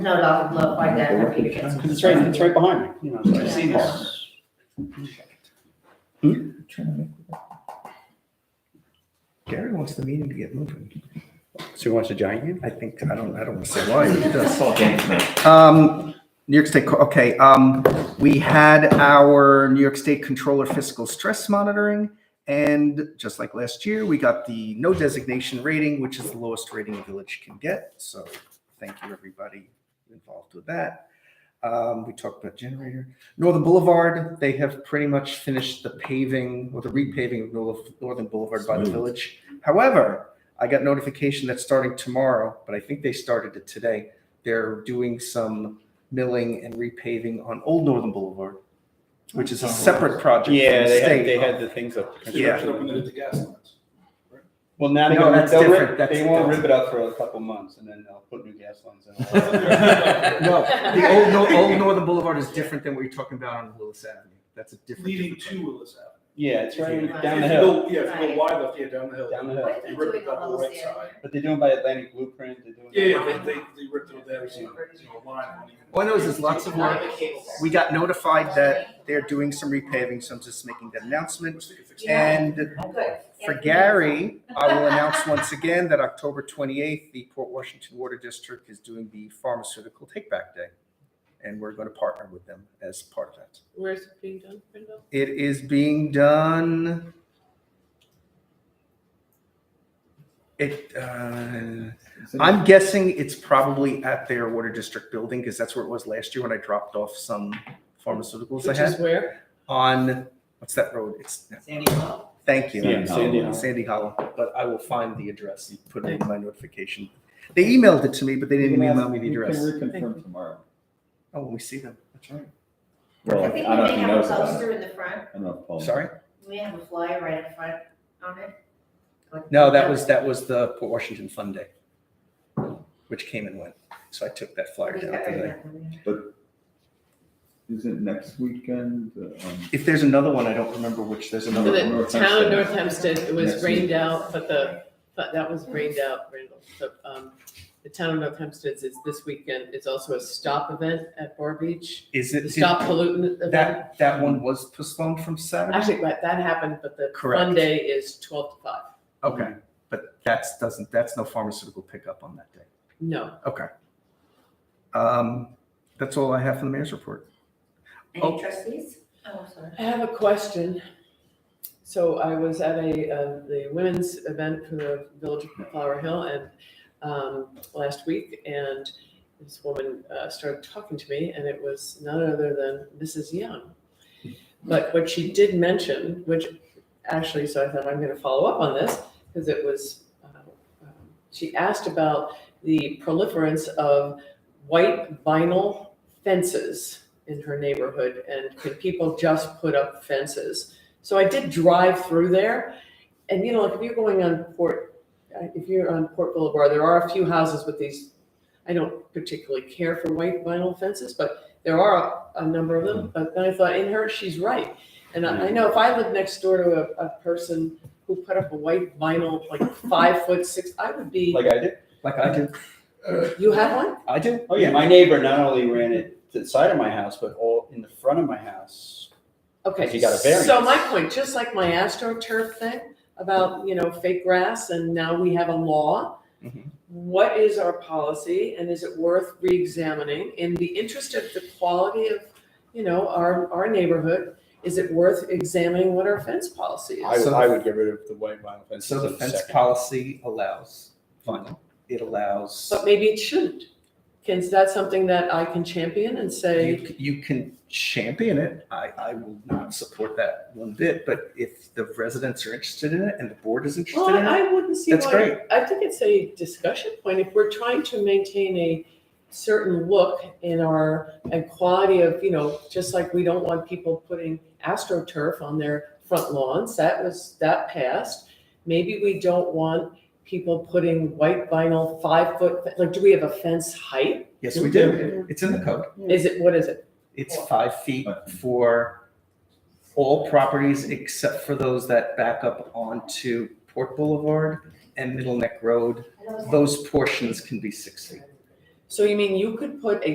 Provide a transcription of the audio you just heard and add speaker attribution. Speaker 1: No, dog look like that. I think it's-
Speaker 2: Because it's right, it's right behind me, you know, so I see this.
Speaker 3: Hmm? Gary wants the meeting to get moving.
Speaker 2: So he wants a giant hand?
Speaker 3: I think, I don't, I don't want to say why, but he
Speaker 4: That's
Speaker 3: does.
Speaker 4: all games now.
Speaker 3: Um, New York State, co- okay, um, we had our New York State Controller Fiscal Stress Monitoring. And just like last year, we got the no designation rating, which is the lowest rating a village can get. So thank you, everybody involved with that. Um, we talked about generator. Northern Boulevard, they have pretty much finished the paving or the repaving of Nor- Northern Boulevard by the
Speaker 4: Smooth.
Speaker 3: village. However, I got notification that starting tomorrow, but I think they started it today. They're doing some milling and repaving on Old Northern Boulevard, which is a separate project. from the
Speaker 2: Oh, Yeah, they had,
Speaker 3: state.
Speaker 2: they had the things up.
Speaker 3: Yeah.
Speaker 2: Well, now
Speaker 3: No,
Speaker 2: they're gonna,
Speaker 3: that's
Speaker 2: they'll
Speaker 3: different.
Speaker 2: rip,
Speaker 3: That's-
Speaker 2: they won't
Speaker 3: that's-
Speaker 2: rip it up for a couple months and then they'll put new gas lines in.
Speaker 5: Oh,
Speaker 3: No, the old, Nor- old Northern Boulevard is different than what you're talking about on Willis Avenue. That's a different.
Speaker 5: leading
Speaker 3: different
Speaker 5: to Willis Avenue.
Speaker 2: Yeah, it's right
Speaker 1: Right.
Speaker 2: down the
Speaker 5: If you
Speaker 2: hill,
Speaker 5: go- Yeah, if you go
Speaker 1: Right.
Speaker 5: wide left, yeah, down the hill.
Speaker 2: Down the hill.
Speaker 1: What
Speaker 5: They
Speaker 1: is
Speaker 5: ripped
Speaker 1: it
Speaker 5: it
Speaker 1: doing
Speaker 5: up on the
Speaker 1: on
Speaker 5: right
Speaker 1: Willis
Speaker 5: side.
Speaker 1: Avenue?
Speaker 2: but they're doing by Atlantic Blueprint, they're doing.
Speaker 5: Yeah, yeah, they, they, they ripped it up there, so, you know, line. on even-
Speaker 3: All I know is there's lots of work. We got notified that they're doing some repaving, so I'm just making that announcement. And
Speaker 1: Good.
Speaker 3: for Gary, I will announce once again that October 28th, the Port Washington Water District is doing the Pharmaceutical Takeback Day. And we're going to partner with them as part of that.
Speaker 6: Where's it being done, Brenda?
Speaker 3: It is being done. It, uh, I'm guessing it's probably at their water district building because that's where it was last year when I dropped off some pharmaceuticals I
Speaker 6: Which is
Speaker 3: had
Speaker 6: where?
Speaker 3: on, what's that road? It's, thank you.
Speaker 2: Yeah, Sandy Hollow.
Speaker 3: Sandy Hollow, but I will find the address and put it in my notification. They emailed it to me, but they didn't email me the address.
Speaker 4: You can reconfirm tomorrow.
Speaker 3: Oh, when we see them. That's right.
Speaker 4: Well,
Speaker 1: I
Speaker 4: I
Speaker 1: think we
Speaker 4: don't know
Speaker 1: may
Speaker 4: if he
Speaker 1: have a
Speaker 4: knows about it.
Speaker 1: poster in the front.
Speaker 4: I don't know if
Speaker 2: Oh.
Speaker 4: Paul.
Speaker 3: Sorry?
Speaker 1: We have a flyer right in front on it. Like-
Speaker 3: No, that was, that was the Port Washington Fund Day, which came and went. So I took that flyer
Speaker 1: We
Speaker 3: down.
Speaker 1: got
Speaker 3: today.
Speaker 1: it.
Speaker 4: Is it next weekend? uh, um,
Speaker 3: If there's another one, I don't remember which, there's
Speaker 6: For
Speaker 3: another one.
Speaker 6: the
Speaker 4: North
Speaker 6: town of
Speaker 4: Hempstead.
Speaker 6: North Hempstead, it was
Speaker 4: Next
Speaker 6: rained out, but the, but that was rained out, Randall. So, um, the town of North Hempstead is this weekend. It's also a stop event at Bar Beach,
Speaker 3: Is
Speaker 6: the
Speaker 3: it,
Speaker 6: stop pollutant event.
Speaker 3: that, that one was postponed from Saturday?
Speaker 6: Actually, but that happened, but the
Speaker 3: Correct.
Speaker 6: Monday is twelve to five.
Speaker 3: Okay, but that's, doesn't, that's no pharmaceutical pickup on that day.
Speaker 6: No,
Speaker 3: Okay. Um, that's all I have for the mayor's report. Oh.
Speaker 1: Any trustees? Oh, sorry.
Speaker 6: I have a question. So I was at a, uh, the women's event for the Village of Flower Hill and, um, last week and this woman, uh, started talking to me and it was none other than Mrs. Young. But what she did mention, which actually, so I thought I'm gonna follow up on this, because it was, uh, um, she asked about the proliferance of white vinyl fences in her neighborhood and can people just put up fences? So I did drive through there and you know, like if you're going on Port, uh, if you're on Port Boulevard, there are a few houses with these, I don't particularly care for white vinyl fences, but there are a, a number of them. But then I thought, in her, she's right. And I, I know if I lived next door to a, a person who put up a white vinyl, like five foot six, I would be,
Speaker 2: Like I did.
Speaker 3: Like I do.
Speaker 6: you have one?
Speaker 3: I do.
Speaker 2: Oh, yeah, my neighbor not only ran it to the side of my house, but all in the front of my house.
Speaker 6: Okay,
Speaker 2: you got a
Speaker 6: so
Speaker 2: variance.
Speaker 6: my point, just like my AstroTurf thing about, you know, fake grass and now we have a law.
Speaker 2: Mm-hmm.
Speaker 3: Mhm.
Speaker 6: What is our policy and is it worth reexamining in the interest of the quality of, you know, our, our neighborhood? Is it worth examining what our fence policy
Speaker 2: I,
Speaker 6: is?
Speaker 2: would-
Speaker 3: So-
Speaker 2: I would get rid of the white vinyl fence.
Speaker 3: So the fence policy allows vinyl. It allows,
Speaker 6: But maybe it shouldn't. Can, is that something that I can champion and say,
Speaker 3: you, you can champion it. I, I will not support that one bit, but if the residents are interested in it and the board is
Speaker 6: well,
Speaker 3: interested in it,
Speaker 6: I I wouldn't see why.
Speaker 3: that's great.
Speaker 6: I think it's a discussion point. If we're trying to maintain a certain look in our, and quality of, you know, just like we don't want people putting astroturf on their front lawns, that was, that passed. Maybe we don't want people putting white vinyl five foot, like, do we have a fence height?
Speaker 3: Yes, we do. It's in the code.
Speaker 6: Is it, what is it?
Speaker 3: It's five feet for all properties except for those that back up onto Port Boulevard and Middle Neck Road. Those portions can be six feet.
Speaker 6: So you mean you could put a